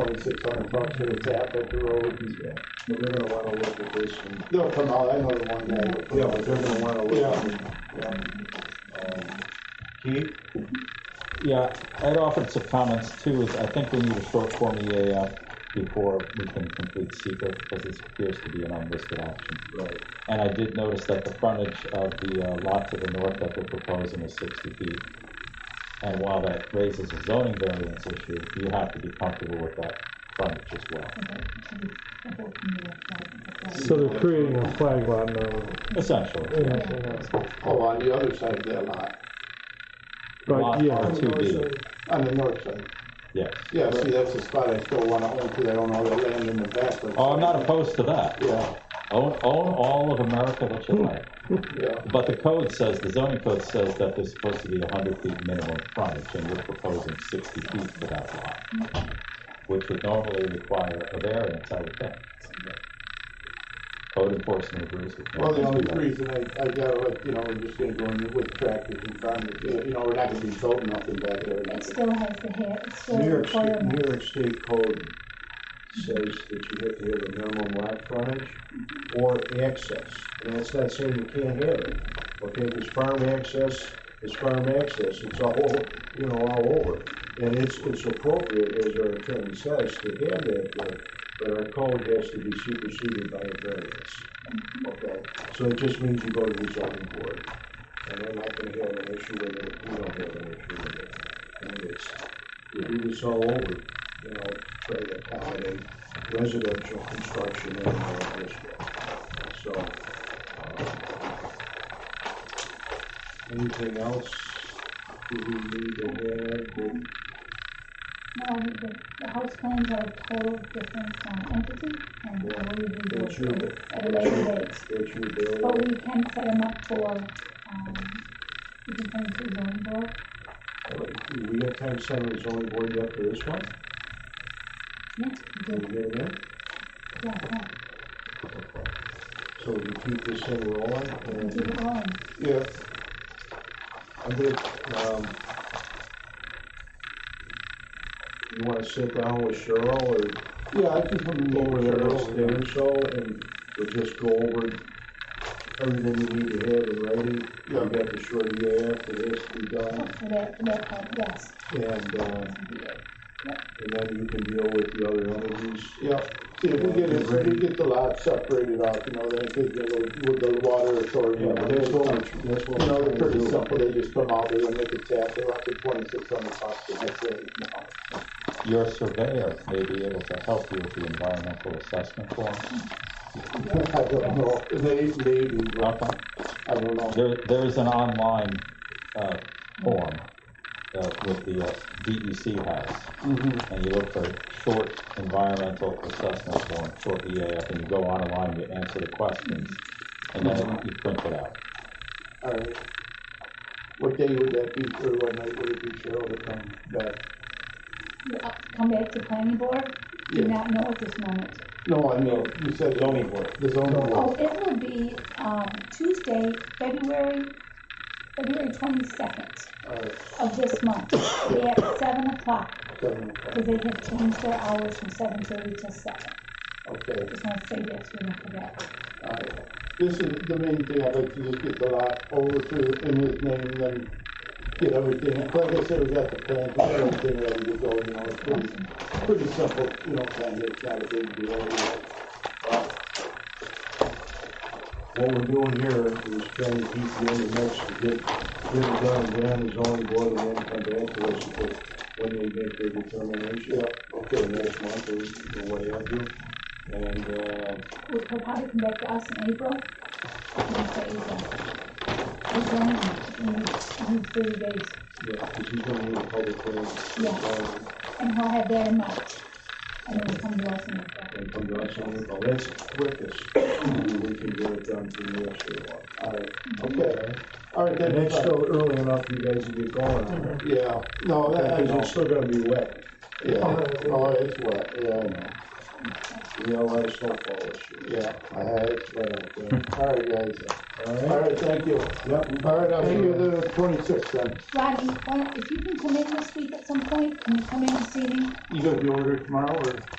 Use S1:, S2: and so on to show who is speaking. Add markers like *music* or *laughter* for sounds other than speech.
S1: twenty-six hundred bucks that it's at, but the road, and
S2: But they're gonna wanna look at this and,
S1: they'll come out, I know the one guy.
S2: yeah, but they're gonna wanna look at it.
S3: Keith?
S4: Yeah, I'd offered some comments too, is I think we need a short form EAF before we can complete secret, because this appears to be an unlisted option.
S2: Right.
S4: And I did notice that the frontage of the uh, lot to the north that we're proposing is sixty feet. And while that raises a zoning variance issue, you have to be comfortable with that frontage as well.
S5: So they're creating a flag lot now.
S4: Essentially,
S5: Yeah,
S1: Oh, on the other side of that lot,
S5: But
S4: Lot
S5: yeah,
S4: R two B,
S1: on the north side.
S4: yes.
S1: Yeah, see, that's the spot I still wanna own, cause I don't know the land in the back. but-
S4: Oh, I'm not opposed to that.
S1: Yeah,
S4: Own, own all of America that
S5: Hmm.
S4: you like.
S1: yeah,
S4: But the code says, the zoning code says that there's supposed to be hundred feet minimum frontage, and you're proposing sixty feet for that lot, which would normally require a variance, I would think. Code enforcement agrees with me.
S1: well, the only reason I, I got, like, you know, we're just gonna go in with tractors and farmers, you know, we're not gonna be building nothing back there.
S6: It still has the hair, it still
S2: New York,
S6: has
S2: State- New
S6: requirements.
S2: York State Code says that you have to have a minimum lot frontage or access. And that's not saying you can't have it, okay, because farm access is farm access, it's all, you know, all over. And it's, it's appropriate, as our attorney says, to have that there, but our code has to be superseded by a variance, okay? So it just means you go to the zoning board, and they're not gonna have an issue with it, we don't have an issue with it. And it's, we do this all over, you know, try to accommodate residential construction in our district. So, uh, um, anything else do we need to add?
S6: No, the, the house plans are a total different um, entity, and
S2: Yeah.
S6: we review
S2: That's your,
S6: those at a
S2: that's
S6: later
S2: your-
S6: date.
S2: that's your bill.
S6: But Oh, we can set them up for, um, we can send to zoning board.
S2: Do we have time to send the zoning board yet for this one?
S6: Yeah,
S2: Can
S6: yeah,
S2: we get it in?
S6: yeah,
S2: So we keep this thing rolling
S6: we
S2: and
S6: do it all. in.
S1: Yeah,
S2: I'm gonna, um, you wanna sit down with Cheryl or
S1: yeah, I can put them
S2: go over
S1: over
S2: there
S1: there.
S2: next day or so and we'll just go over everything we need to have in writing. We
S1: Yeah.
S2: got the short EAF for this to be
S6: Oh,
S2: done
S6: For that, for that part, yes.
S2: and, uh, and then you can deal with the other entities.
S1: Yeah, see, if we get, it- if we get the lot separated off, you know, then it could, go with the water authority.
S2: Yeah, but that's what we're, that's what
S1: You know,
S2: we're
S1: they're
S2: trying to
S1: pretty
S2: do.
S1: simple, they just come out, they make a tap, they're up to twenty-six hundred bucks, and that's it, you know. *laughs*
S4: Your surveyor may be able to help you with the environmental assessment form.
S1: I don't know, they, they,
S4: Okay.
S1: I don't know.
S4: There, there is an online, uh, form, uh, with the uh, DEC has.
S1: Mm-hmm.
S4: and you look for short environmental assessment form, short EAF, and you go online, you answer the questions, and then you print it out.
S1: All right. What day would that be, or what night would it be, Cheryl, to come back?
S6: You up- Come back to planning board, do
S1: Yeah.
S6: not know at this moment.
S1: No, I mean, you said. Zoning board. The zoning
S6: Oh,
S1: board.
S6: it will be, um, Tuesday, February, February twenty-second
S1: All right,
S6: of this month, at seven o'clock,
S1: seven o'clock.
S6: because they have changed their hours from seven thirty to seven.
S1: okay.
S6: Just wanna say that, so we don't forget.
S1: Alright. This is the main thing, I'd like to just get the lot over to in his name and then get everything, like I said, we got the plans, we got everything ready to go, you know, it's pretty, pretty simple, you know, plan, it's not a big deal, you know.
S2: What we're doing here is trying to keep the end of next to get, get it done, and then is only going to then come back to us for when they make their determination. Okay, next month or or what have you. And, uh,
S6: We'll probably come back to us in April, next April. We're going, we need, we need thirty days,
S2: yeah, because he's gonna need a public hearing.
S6: Yeah.
S2: um,
S6: and he'll have that in March, and then we'll come to us in April.
S2: And come to us on it, but that's the quickest. We can get it done for the rest of the month.
S1: Alright, okay. Alright,
S2: And
S1: then,
S2: it's still early enough, you guys can get going on it.
S1: yeah, no, that, I
S2: Because
S1: know,
S2: it's still gonna be wet.
S1: yeah, no, it's wet, yeah, I know.
S2: realize snowfall issue.
S1: Yeah, I had it.
S2: It's right out there.
S1: All right, guys. All
S2: Alright,
S1: right, thank you.
S2: yep,
S1: All right, I'll see you the twenty-sixth then.
S6: Rodney, why don't- if you can come in this week at some point, can you come in and see me?
S1: You got the order tomorrow or?